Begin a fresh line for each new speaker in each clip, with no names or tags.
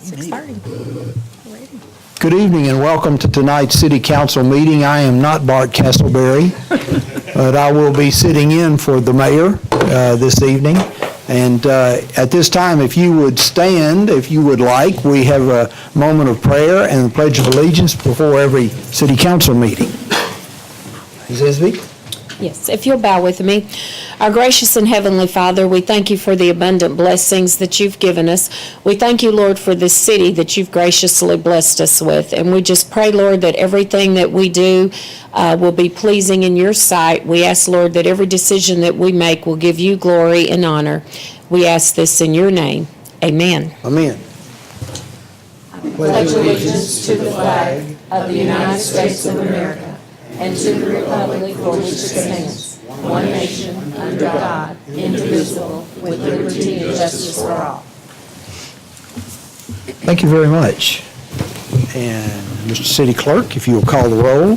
Six thirty.
Good evening and welcome to tonight's city council meeting. I am not Bart Castleberry, but I will be sitting in for the mayor uh, this evening. And uh, at this time, if you would stand, if you would like, we have a moment of prayer and the pledge of allegiance before every city council meeting. Ms. Isby?
Yes, if you'll bow with me. Our gracious and heavenly Father, we thank you for the abundant blessings that you've given us. We thank you, Lord, for this city that you've graciously blessed us with. And we just pray, Lord, that everything that we do uh, will be pleasing in your sight. We ask, Lord, that every decision that we make will give you glory and honor. We ask this in your name. Amen.
Amen. Thank you very much. And Mr. City Clerk, if you'll call the roll.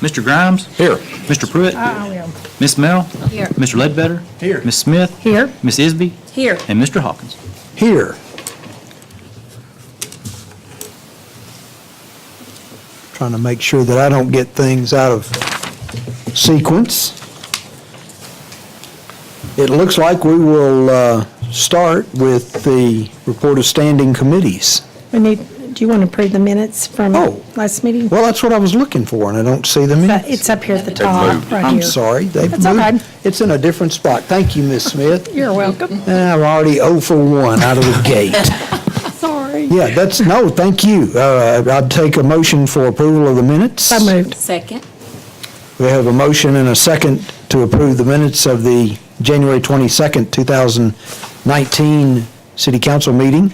Mr. Grimes? Here. Mr. Pruitt? I am. Ms. Mel? Here. Mr. Ledbetter? Here. Ms. Smith? Here. Ms. Isby?
Here.
And Mr. Hawkins?
here. Trying to make sure that I don't get things out of sequence. It looks like we will uh, start with the report of standing committees.
We need, do you want to approve the minutes from
Oh.
last meeting?
Well, that's what I was looking for, and I don't see them in.
But It's up here at the top, right
I'm
here.
sorry. they've
That's all
moved-
right.
It's in a different spot. Thank you, Ms. Smith.
You're welcome.
Eh, I'm already 0 for 1 out of the gate.
Sorry.
Yeah, that's, no, thank you. Uh, I'd take a motion for approval of the minutes.
So moved.
Second.
We have a motion and a second to approve the minutes of the January 22nd, 2019 City Council meeting.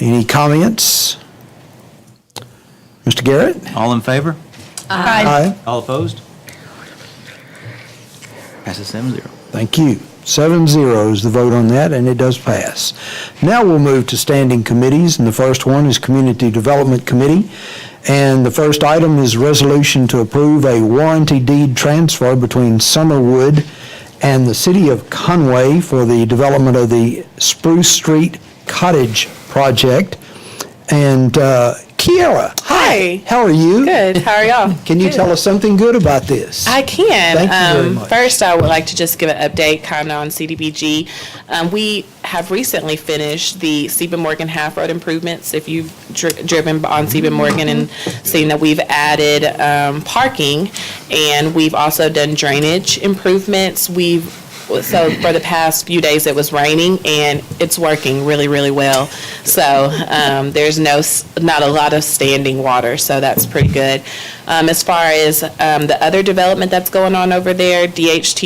Any comments? Mr. Garrett?
All in favor?
Aye.
All opposed? Passes seven zero.
Thank you. Seven zero is the vote on that, and it does pass. Now we'll move to standing committees, and the first one is Community Development Committee. And the first item is resolution to approve a warranty deed transfer between Summerwood and the City of Conway for the development of the Spruce Street Cottage Project. And uh, Kiara,
Hi.
how are you?
Good. How are y'all?
Can you tell us something good about this?
I can.
Thank you very
Um,
much.
First, I would like to just give an update kind of on CDBG. Um, we have recently finished the Stephen Morgan Half Road improvements. If you've dri- driven on Stephen Morgan and seen that we've added um, parking and we've also done drainage improvements, we've so for the past few days it was raining and it's working really really well so um, there's no s- not a lot of standing water so that's pretty good um, as far as um, the other development that's going on over there dht